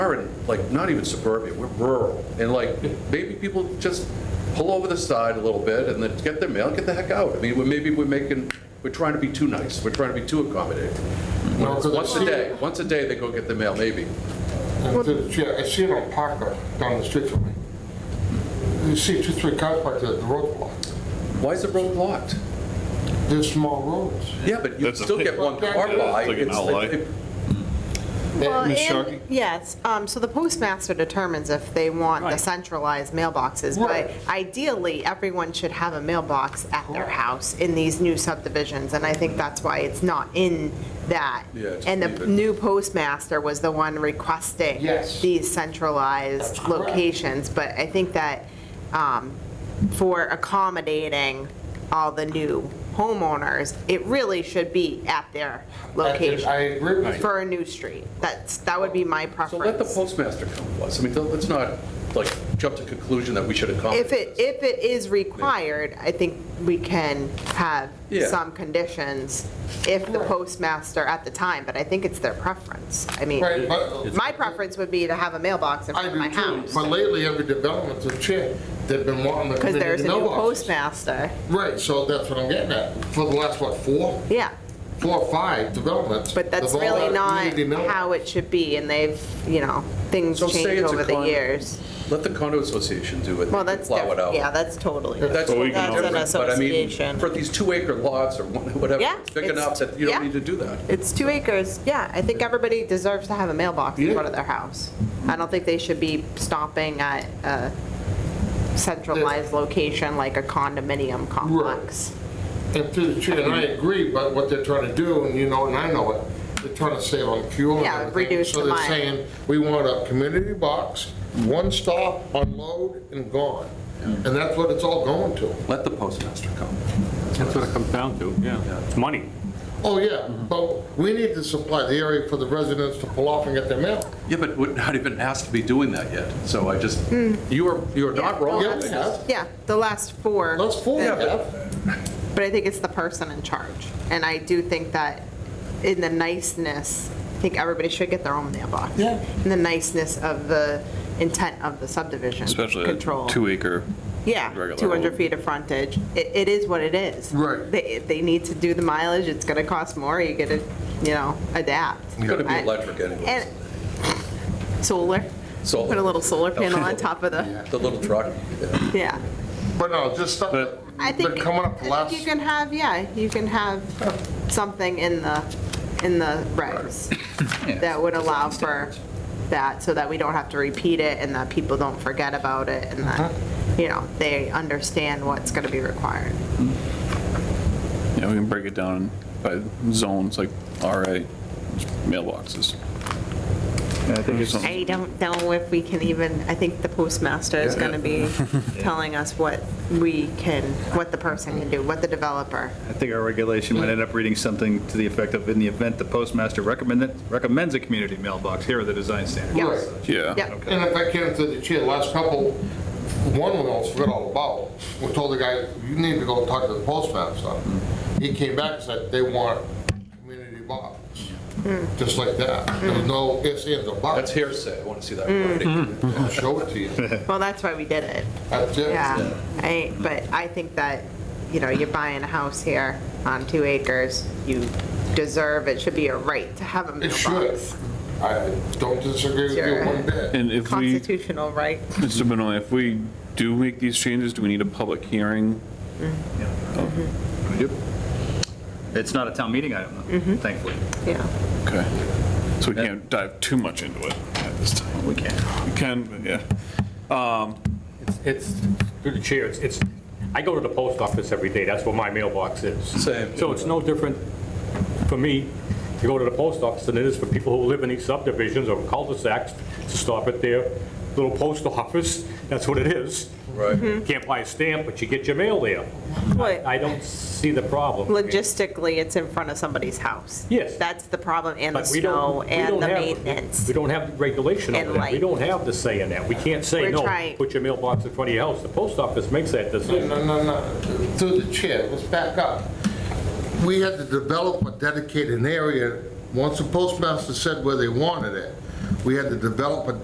are in, like, not even suburbia, we're rural. And like, maybe people just pull over the side a little bit and then get their mail, get the heck out. I mean, we're- maybe we're making, we're trying to be too nice, we're trying to be too accommodating. No, 'cause I Once a see day, it- once a day, they go get their mail, maybe. and the- Yeah, I see it on Parker down the street from me. You see two, three cars parked there at the roadblock. Why is the road blocked? They're small roads. Yeah, but you That's a still big- get one car by. It's like an It's- outlier. it- Well, Ms. and- Sharkey? Yes, um, so the postmaster determines if they want the Right. centralized mailboxes, Right. but ideally, everyone should have a mailbox at their Correct. house in these new subdivisions, and I think that's why it's not in that. Yeah, just And leave the it. new postmaster was the one requesting Yes. these centralized That's correct. locations, but I think that um, for accommodating all the new homeowners, it really should be at their location I agree with you. for a new street. That's, that would be my So let the preference. postmaster come to us. I mean, let's not, like, jump to conclusion that we should accommodate If it, this. if it is required, I think we can have Yeah. some conditions if the postmaster at the time, but I think it's their preference. I mean, Right, but- my preference would be to have a mailbox in I front of my do too, house. but lately every development to check, they've been wanting the Because there's community a new mailboxes. postmaster. Right, so that's what I'm getting at. For the last, what, four, Yeah, four or five developments. but that's they've all really had not community mailbox. how it should be, and they've, you know, things So say change it's a over the con- years. Let the condo association do it. They Well, can that's, plow it different. out. yeah, that's totally. That's So we totally can all- different, That's an Oh, but I mean, association. for these two acre lots or one- whatever, Yeah, it's big it's- enough that you don't yeah. need to do that. It's two acres, yeah, I think everybody deserves to have a mailbox in Yeah. front of their house. I don't think they should be stopping at a centralized location like a condominium complex. And through the chair, and I agree, but what they're trying to do, and you know, and I know it, they're trying to save on fuel and Yeah, everything. reduce the mile. So they're saying, we want a community box, one stop, unload, and gone. Mm-hmm. And that's what it's all going to. Let the postmaster come. That's what it comes down to, yeah. It's money. Oh, yeah, Mm-hmm. but we need to supply the area for the residents to pull off and get their mail. Yeah, but we're not even asked to be doing that yet, so I just, Hmm. you are, you are not wrong. Yeah, we have. Yeah, the last four, That's four we Yeah, but- have. but I think it's the person in charge. And I do think that in the niceness, I think everybody should get their own mailbox. Yeah. In the niceness of the intent of the subdivision Especially control. a two-acre. Yeah, regular 200 road. feet of frontage. It, it is what it is. Right. They, they need to do the mileage, it's gonna cost more, you gotta, you know, adapt. It's gonna be I- electric anyways, And solar, Solar. put a little solar panel on top of the, the little truck. yeah. But no, just stuff that, But- I think. but coming up the I think last, You can have, yeah, you can have something in the, in the regs that would allow for that, so that we don't have to repeat it and that people don't forget about it and that, Uh-huh. you know, they understand what's gonna be required. Yeah, we can break it down by zones, like RA, mailboxes. I think it's, I don't know if we can even, I think the postmaster is going to be telling us what we can, what the person can do, what the developer. I think our regulation might end up reading something to the effect of, in the event the postmaster recommend- recommends a community mailbox, here are the design standards. Yeah. Right. Yeah. Yeah, and if I can through the chair, last couple, one we almost forgot all about. We told the guy, you need to go talk to the postmaster. Mm-hmm. He came back and said, they want community box, Mm. just like that. There was no ifs, ands, or That's buts. hearsay, I want to see that. Hmm. writing. Hmm. I'll show it to you. well, that's why we did it. That's it. Yeah, I, but I think that, you know, you're buying a house here on two acres, you deserve, it should be a right to have a It should. mailbox. I don't disagree with you Sure. one bit. And if we, Constitutional right. Mr. Benoit, if we do make these changes, do we need a public hearing? It's not a town meeting item, though, thankfully. yeah. Okay. So we can't dive too much into it at this time. We can. We can, but yeah. It's- It's, through the chair, it's- it's, I go to the post office every day, that's where my mailbox is. Same. So it's no different for me to go to the post office than it is for people who live in these subdivisions or cul-de-sacs to stop at their little post office, that's what it is. Right. Can't buy a stamp, but you get your mail there. I don't see the problem. Logistically, it's in front of somebody's house. Yes. That's the problem, and the But we don't- snow, we and don't the have- maintenance. We don't have regulation And over that. We light. don't have the say in that. We can't say, We're no, trying- put your mailbox in front of your house. The post office makes that decision. No, no, no, through the chair, let's back up. We had to develop a dedicated area, once the postmaster said where they wanted it, we had to develop a